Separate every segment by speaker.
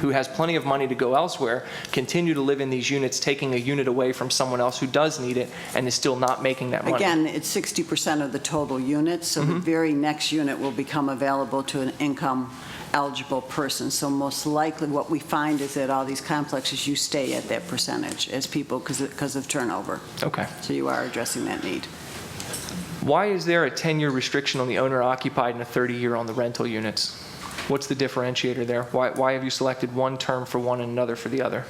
Speaker 1: who has plenty of money to go elsewhere, continue to live in these units, taking a unit away from someone else who does need it and is still not making that money.
Speaker 2: Again, it's 60% of the total units, so the very next unit will become available to an income-eligible person. So most likely, what we find is that all these complexes, you stay at that percentage as people, because of turnover.
Speaker 1: Okay.
Speaker 2: So you are addressing that need.
Speaker 1: Why is there a 10-year restriction on the owner occupied and a 30-year on the rental units? What's the differentiator there? Why, why have you selected one term for one and another for the other?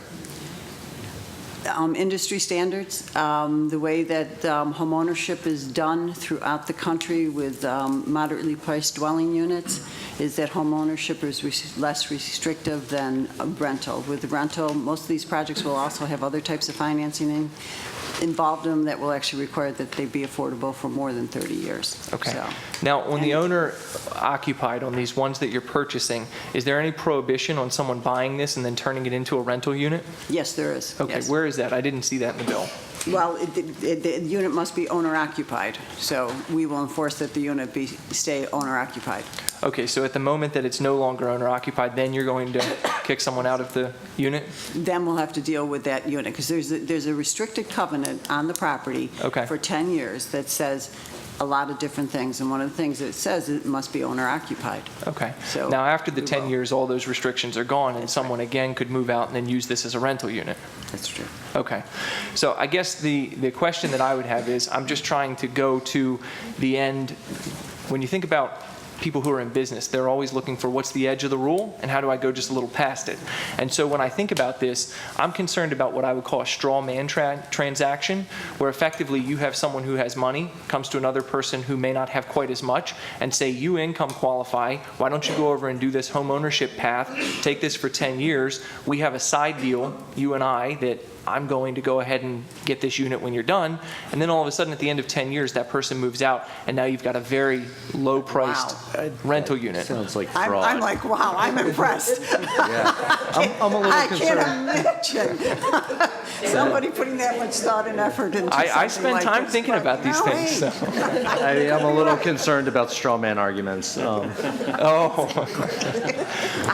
Speaker 2: um, industry standards, um, the way that um, homeownership is done throughout the country with um, moderately priced dwelling units, is that homeownership is res- less restrictive than a rental. With rental, most of these projects will also have other types of financing in- involved in them that will actually require that they be affordable for more than 30 years.
Speaker 1: Okay.
Speaker 2: So-
Speaker 1: Now, on the
Speaker 2: And-
Speaker 1: owner occupied, on these ones that you're purchasing, is there any prohibition on someone buying this and then turning it into a rental unit?
Speaker 2: Yes, there is.
Speaker 1: Okay,
Speaker 2: Yes.
Speaker 1: where is that? I didn't see that in the bill.
Speaker 2: Well, it- it- the unit must be owner occupied, so we will enforce that the unit be, stay owner occupied.
Speaker 1: Okay, so at the moment that it's no longer owner occupied, then you're going to kick someone out of the unit?
Speaker 2: then we'll have to deal with that unit, because there's, a- there's a restricted covenant on the property
Speaker 1: Okay.
Speaker 2: for 10 years that says a lot of different things, and one of the things it says, it must be owner occupied.
Speaker 1: Okay.
Speaker 2: So,
Speaker 1: Now, after the
Speaker 2: we
Speaker 1: 10
Speaker 2: will.
Speaker 1: years, all those restrictions are gone and someone again could move out and then use this as a rental unit?
Speaker 2: That's true.
Speaker 1: Okay. So I guess the, the question that I would have is, I'm just trying to go to the end. When you think about people who are in business, they're always looking for what's the edge of the rule and how do I go just a little past it? And so when I think about this, I'm concerned about what I would call a straw man tra- transaction, where effectively you have someone who has money, comes to another person who may not have quite as much, and say, you income qualify, why don't you go over and do this home ownership path, take this for 10 years, we have a side deal, you and I, that I'm going to go ahead and get this unit when you're done. And then all of a sudden, at the end of 10 years, that person moves out, and now you've got a very low-priced uh, rental unit.
Speaker 3: Sounds like
Speaker 2: I'm, I'm
Speaker 3: fraud.
Speaker 2: like, wow, I'm impressed.
Speaker 3: I'm I'm a
Speaker 2: I
Speaker 3: little concerned.
Speaker 2: can't imagine somebody putting that much thought and effort into
Speaker 1: I, I
Speaker 2: something
Speaker 1: spend
Speaker 2: like
Speaker 1: time
Speaker 2: this,
Speaker 1: thinking
Speaker 2: but
Speaker 1: about these
Speaker 2: no
Speaker 1: things,
Speaker 2: way.
Speaker 1: so.
Speaker 3: I- I'm a little concerned about straw man arguments. Um,
Speaker 1: Oh,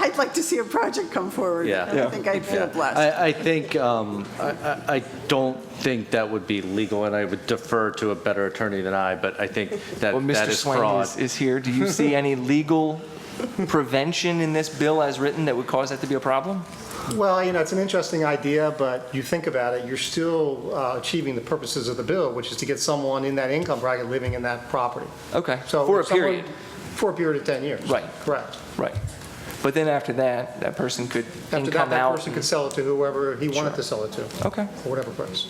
Speaker 2: I'd like to see a project come forward.
Speaker 3: Yeah.
Speaker 2: I think I'd feel
Speaker 3: yeah.
Speaker 2: blessed.
Speaker 3: I, I think, um, I, I- I don't think that would be legal, and I would defer to a better attorney than I, but I think that
Speaker 1: well, Mr.
Speaker 3: that is
Speaker 1: Swain
Speaker 3: fraud.
Speaker 1: is, is here. Do you see any legal prevention in this bill as written that would cause that to be a problem?
Speaker 4: Well, you know, it's an interesting idea, but you think about it, you're still uh, achieving the purposes of the bill, which is to get someone in that income bracket living in that property.
Speaker 1: Okay,
Speaker 4: So
Speaker 1: for a
Speaker 4: if someone-
Speaker 1: period,
Speaker 4: For a period of 10 years.
Speaker 1: Right.
Speaker 4: Correct.
Speaker 1: right. But then after that, that person could
Speaker 4: After that,
Speaker 1: income
Speaker 4: that
Speaker 1: out.
Speaker 4: person could sell it to whoever he wanted to sell it to,
Speaker 1: Okay.
Speaker 4: for whatever price.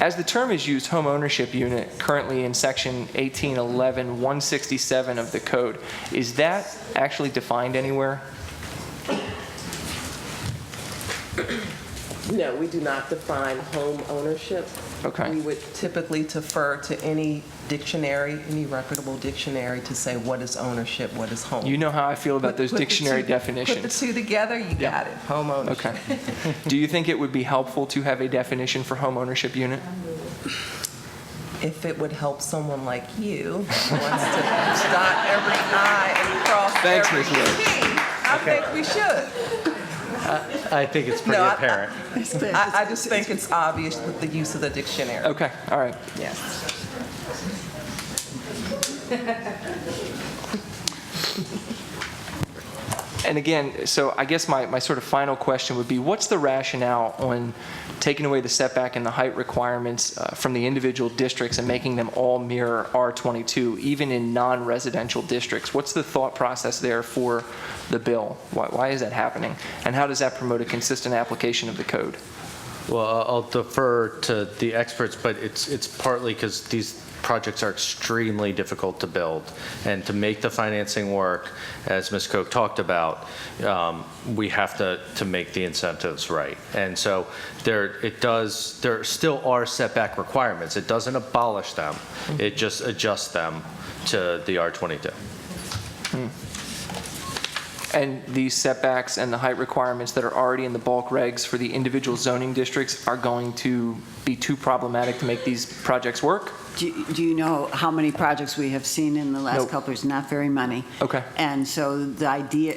Speaker 1: As the term is used, home ownership unit, currently in section 1811, 167 of the code, is that actually defined anywhere?
Speaker 5: No, we do not define home ownership.
Speaker 1: Okay.
Speaker 5: We would typically defer to any dictionary, any reputable dictionary to say what is ownership, what is home.
Speaker 1: You know how I feel about those
Speaker 5: Put the
Speaker 1: dictionary
Speaker 5: two- Put the
Speaker 1: definitions.
Speaker 5: two together, you
Speaker 1: Yeah.
Speaker 5: got it, home ownership.
Speaker 1: Okay. Do you think it would be helpful to have a definition for home ownership unit?
Speaker 5: If it would help someone like you, who wants to dot every I and cross
Speaker 1: Thanks,
Speaker 5: every
Speaker 1: Ms. Lewis.
Speaker 5: T, I think we should.
Speaker 3: I think it's pretty
Speaker 5: No, I- I-
Speaker 3: apparent.
Speaker 5: I, I just think it's obvious with the use of the dictionary.
Speaker 1: Okay, all right.
Speaker 5: Yes.
Speaker 1: And again, so I guess my, my sort of final question would be, what's the rationale on taking away the setback and the height requirements uh, from the individual districts and making them all mirror R22, even in non-residential districts? What's the thought process there for the bill? Why, why is that happening? And how does that promote a consistent application of the code?
Speaker 3: Well, I- I'll defer to the experts, but it's, it's partly because these projects are extremely difficult to build. And to make the financing work, as Ms. Koch talked about, um, we have to, to make the incentives right. And so there, it does, there still are setback requirements. It doesn't abolish them. It just adjusts them to the R22.
Speaker 1: And these setbacks and the height requirements that are already in the bulk regs for the individual zoning districts are going to be too problematic to make these projects work?
Speaker 2: Do do you know how many projects we have seen in the last
Speaker 1: Nope.
Speaker 2: couple of years? Not very many.
Speaker 1: Okay.
Speaker 2: And so the idea